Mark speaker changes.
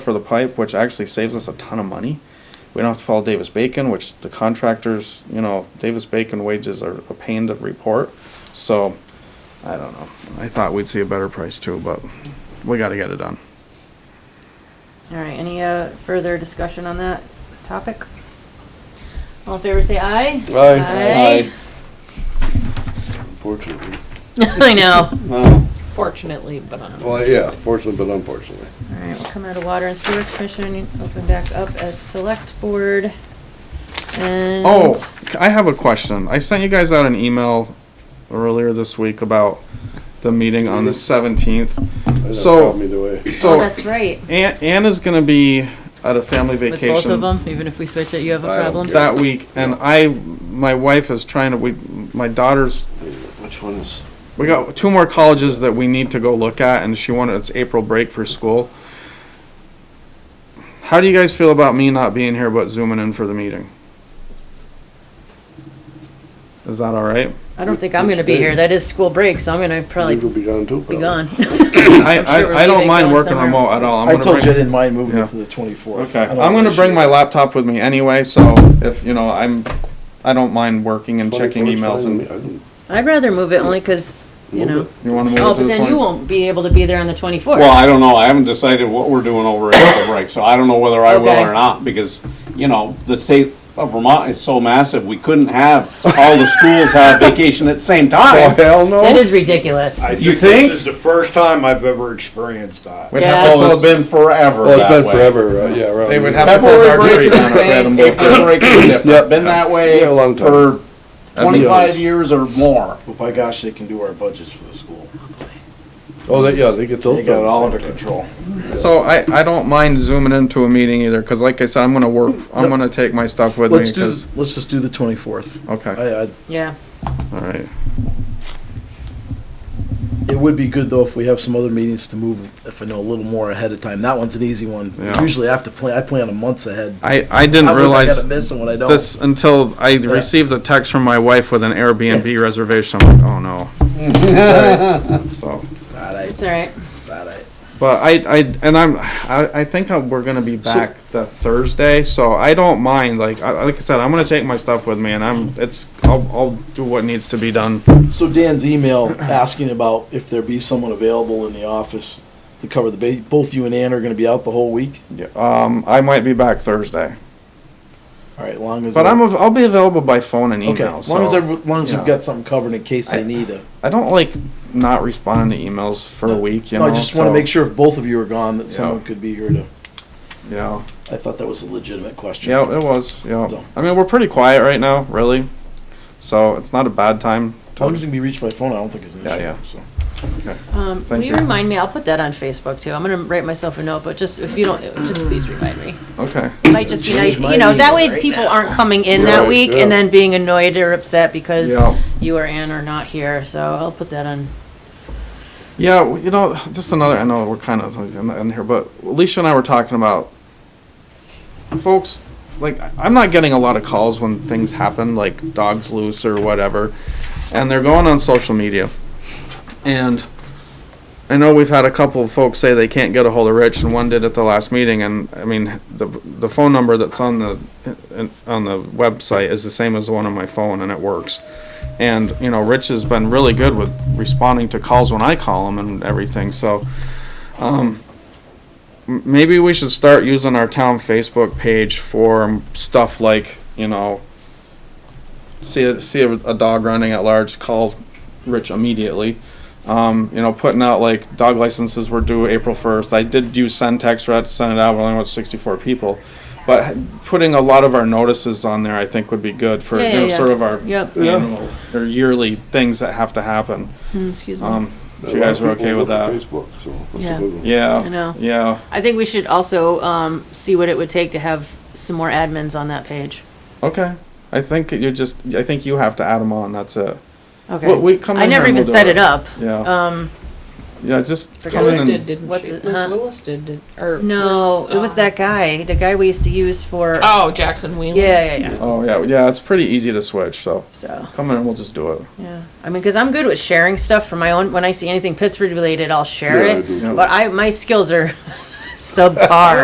Speaker 1: for the pipe, which actually saves us a ton of money. We don't have to follow Davis Bacon, which the contractors, you know, Davis Bacon wages are a pain to report. So, I don't know. I thought we'd see a better price too, but we gotta get it done.
Speaker 2: All right, any uh, further discussion on that topic? All in favor, say aye. Aye.
Speaker 3: Unfortunately.
Speaker 2: I know.
Speaker 3: No.
Speaker 4: Fortunately, but unfortunately.
Speaker 3: Well, yeah, fortunately, but unfortunately.
Speaker 2: All right, we'll come out of Water and Sewer Commission, open back up as Select Board.
Speaker 4: Mm.
Speaker 2: And.
Speaker 1: Oh, c- I have a question. I sent you guys out an email earlier this week about the meeting on the seventeenth.
Speaker 3: It
Speaker 1: So-
Speaker 3: helped me the way.
Speaker 2: Oh,
Speaker 1: So,
Speaker 2: that's right.
Speaker 1: Ann, Ann is gonna be at a family
Speaker 4: With both
Speaker 1: vacation.
Speaker 4: of them, even if we switch it, you have a
Speaker 3: I don't
Speaker 4: problem?
Speaker 3: care.
Speaker 1: that week, and I, my wife is trying to, we, my daughter's,
Speaker 3: Which one is?
Speaker 1: we got two more colleges that we need to go look at, and she wanted, it's April break for school. How do you guys feel about me not being here but zooming in for the meeting? Is that all right?
Speaker 4: I don't think I'm gonna be here. That is school break, so I'm gonna
Speaker 3: You'll
Speaker 4: probably
Speaker 3: be gone too.
Speaker 4: be gone.
Speaker 1: I,
Speaker 4: sure we're
Speaker 1: I, I don't
Speaker 4: leaving,
Speaker 1: mind
Speaker 4: going
Speaker 1: working
Speaker 4: somewhere.
Speaker 1: remote at all. I'm
Speaker 5: I
Speaker 1: gonna
Speaker 5: told you I
Speaker 1: bring-
Speaker 5: didn't mind moving
Speaker 1: Yeah.
Speaker 5: it to the twenty-fourth.
Speaker 1: Okay, I'm gonna bring my laptop with me anyway, so if, you know, I'm, I don't mind working and checking emails and,
Speaker 4: I'd rather move it only because, you know.
Speaker 1: you wanna move
Speaker 4: Oh,
Speaker 1: it to
Speaker 4: but
Speaker 1: the
Speaker 4: then you
Speaker 1: twenty?
Speaker 4: won't be able to be there on the twenty-fourth.
Speaker 6: Well, I don't know. I haven't decided what we're doing over at the break, so I don't know whether I will
Speaker 4: Okay.
Speaker 6: or not, because, you know, the state of Vermont is so massive, we couldn't have all the schools have vacation at the same time.
Speaker 3: Oh, Hell no.
Speaker 4: That is ridiculous.
Speaker 7: I
Speaker 6: You
Speaker 7: think this
Speaker 6: think?
Speaker 7: is the first time I've ever experienced that.
Speaker 1: We'd
Speaker 4: Yeah.
Speaker 1: have to
Speaker 6: Well, it's
Speaker 1: close,
Speaker 6: been forever
Speaker 3: Well,
Speaker 6: that
Speaker 3: it's been
Speaker 6: way.
Speaker 3: forever, uh, yeah, right.
Speaker 1: they would have to close
Speaker 6: February
Speaker 1: our tree
Speaker 6: break
Speaker 1: down
Speaker 6: is the
Speaker 1: at Redham
Speaker 6: same,
Speaker 1: Brook.
Speaker 6: April break is different. Been that way
Speaker 3: Yeah, a long time.
Speaker 6: for
Speaker 1: I'd be
Speaker 6: twenty-five years or more.
Speaker 5: But by gosh, they can do our budgets for the school.
Speaker 3: Oh, they, yeah, they get those.
Speaker 5: They got it all
Speaker 3: done.
Speaker 5: under control.
Speaker 1: So I, I don't mind zooming into a meeting either, cause like I said, I'm gonna work, I'm gonna take my stuff with me,
Speaker 5: Let's do,
Speaker 1: 'cause-
Speaker 5: let's just do the twenty-fourth.
Speaker 1: okay,
Speaker 5: I, I,
Speaker 4: Yeah,
Speaker 1: alright.
Speaker 5: it would be good though if we have some other meetings to move, if I know a little more ahead of time. That one's an easy one.
Speaker 1: Yeah.
Speaker 5: Usually I have to plan, I plan a months ahead.
Speaker 1: I, I
Speaker 5: I
Speaker 1: didn't
Speaker 5: look, I
Speaker 1: realize
Speaker 5: gotta miss them when I don't.
Speaker 1: this until I received a text from my wife with an Airbnb reservation, I'm like, oh no. So,
Speaker 5: All right,
Speaker 4: it's all right.
Speaker 5: all right.
Speaker 1: but I, I, and I'm, I, I think I- we're gonna be back the Thursday, so I don't mind, like, I, like I said, I'm gonna take my stuff with me and I'm, it's, I'll, I'll do what needs to be done.
Speaker 5: So Dan's email asking about if there be someone available in the office to cover the ba, both you and Ann are gonna be out the whole week?
Speaker 1: Yeah, Um, I might be back Thursday,
Speaker 5: All right, long as.
Speaker 1: but I'm,
Speaker 5: okay.
Speaker 1: av- I'll be available by phone and email,
Speaker 5: As long as,
Speaker 1: so-
Speaker 5: every- as long as
Speaker 1: yeah.
Speaker 5: you've got something covered in case they need a.
Speaker 1: I don't like not responding to emails for a week. You
Speaker 5: No,
Speaker 1: know,
Speaker 5: I just want
Speaker 1: so,
Speaker 5: to make sure if both of you are gone, that someone
Speaker 1: Yeah.
Speaker 5: could be here to,
Speaker 1: Yeah,
Speaker 5: I thought that was a legitimate question.
Speaker 1: yeah, it was. Yeah,
Speaker 5: So-
Speaker 1: I mean, we're pretty quiet right now, really. So it's not a bad time.
Speaker 5: How long
Speaker 1: To,
Speaker 5: as it can be reached by phone, I don't think it's an
Speaker 1: Yeah,
Speaker 5: issue,
Speaker 1: yeah.
Speaker 5: so.
Speaker 4: Um, will
Speaker 1: Thank
Speaker 4: you
Speaker 1: you.
Speaker 4: remind me? I'll put that on Facebook too. I'm gonna write myself a note, but just if you don't, just please remind me.
Speaker 1: okay,
Speaker 4: It might just be nice,
Speaker 5: Change my
Speaker 4: you know, that
Speaker 5: email
Speaker 4: way
Speaker 5: right
Speaker 4: people
Speaker 5: now.
Speaker 4: aren't coming in that
Speaker 3: Right,
Speaker 4: week
Speaker 3: yeah.
Speaker 4: and then being annoyed or upset because
Speaker 1: Yeah.
Speaker 4: you or Ann are not here, so I'll put that on.
Speaker 1: yeah. well, You know, just another. I know we're kind of in here, but Alicia and I were talking about folks. Like, I'm not getting a lot of calls when things happen, like dogs loose or whatever, and they're going on social media, and. I know we've had a couple of folks say they can't get a hold of Rich, and one did at the last meeting. And I mean, the the phone number that's on the on the website is the same as the one on my phone, and it works. And you know, Rich has been really good with responding to calls when I call him and everything. So, um, m- maybe we should start using our town Facebook page for stuff like you know, see a, see a, a dog running at large, call Rich immediately um, you know, putting out like dog licenses were due April first. I did use send text, right, send it out, we only went sixty-four people. But putting a lot of our notices on there, I think would be good for,
Speaker 4: Yeah,
Speaker 1: you
Speaker 4: yeah,
Speaker 1: know,
Speaker 4: yeah.
Speaker 1: sort of our
Speaker 4: Yep. Yeah.
Speaker 1: annual or yearly things that have to happen.
Speaker 4: mm, excuse me.
Speaker 1: Um, if
Speaker 3: A
Speaker 1: you
Speaker 3: lot
Speaker 1: guys
Speaker 3: of
Speaker 1: are
Speaker 3: people
Speaker 1: okay with
Speaker 3: look at
Speaker 1: that.
Speaker 3: Facebook, so. that's a
Speaker 4: Yeah.
Speaker 3: good one.
Speaker 1: Yeah.
Speaker 4: I know.
Speaker 1: Yeah,
Speaker 4: I think we should also um, see what it would take to have some more admins on that page.
Speaker 1: okay. I think you just, I think you have to add them on, that's it.
Speaker 4: Okay.
Speaker 1: Well, we come
Speaker 4: I
Speaker 1: in
Speaker 4: never
Speaker 1: and we'll
Speaker 4: even
Speaker 1: do
Speaker 4: set
Speaker 1: it.
Speaker 4: it up.
Speaker 1: Yeah,
Speaker 4: Um,
Speaker 1: yeah, just.
Speaker 4: Forgot
Speaker 1: come in
Speaker 4: Liz
Speaker 1: and-
Speaker 4: did, didn't What's she? it,
Speaker 8: Liz
Speaker 4: huh?
Speaker 8: Lewis did, did- or.
Speaker 4: no,
Speaker 8: Liz,
Speaker 4: it was
Speaker 8: um,
Speaker 4: that guy, the guy we used to use for.
Speaker 8: Oh, Jackson Wheeler.
Speaker 4: Yeah, yeah, yeah.
Speaker 1: Oh, yeah, yeah, it's pretty easy to switch, so
Speaker 4: So,
Speaker 1: come in and we'll just do it.
Speaker 4: yeah. I mean, because I'm good with sharing stuff for my own. When I see anything Pittsburgh related, I'll share
Speaker 3: Yeah, I
Speaker 4: it.
Speaker 3: do too.
Speaker 4: But I, my skills are subpar.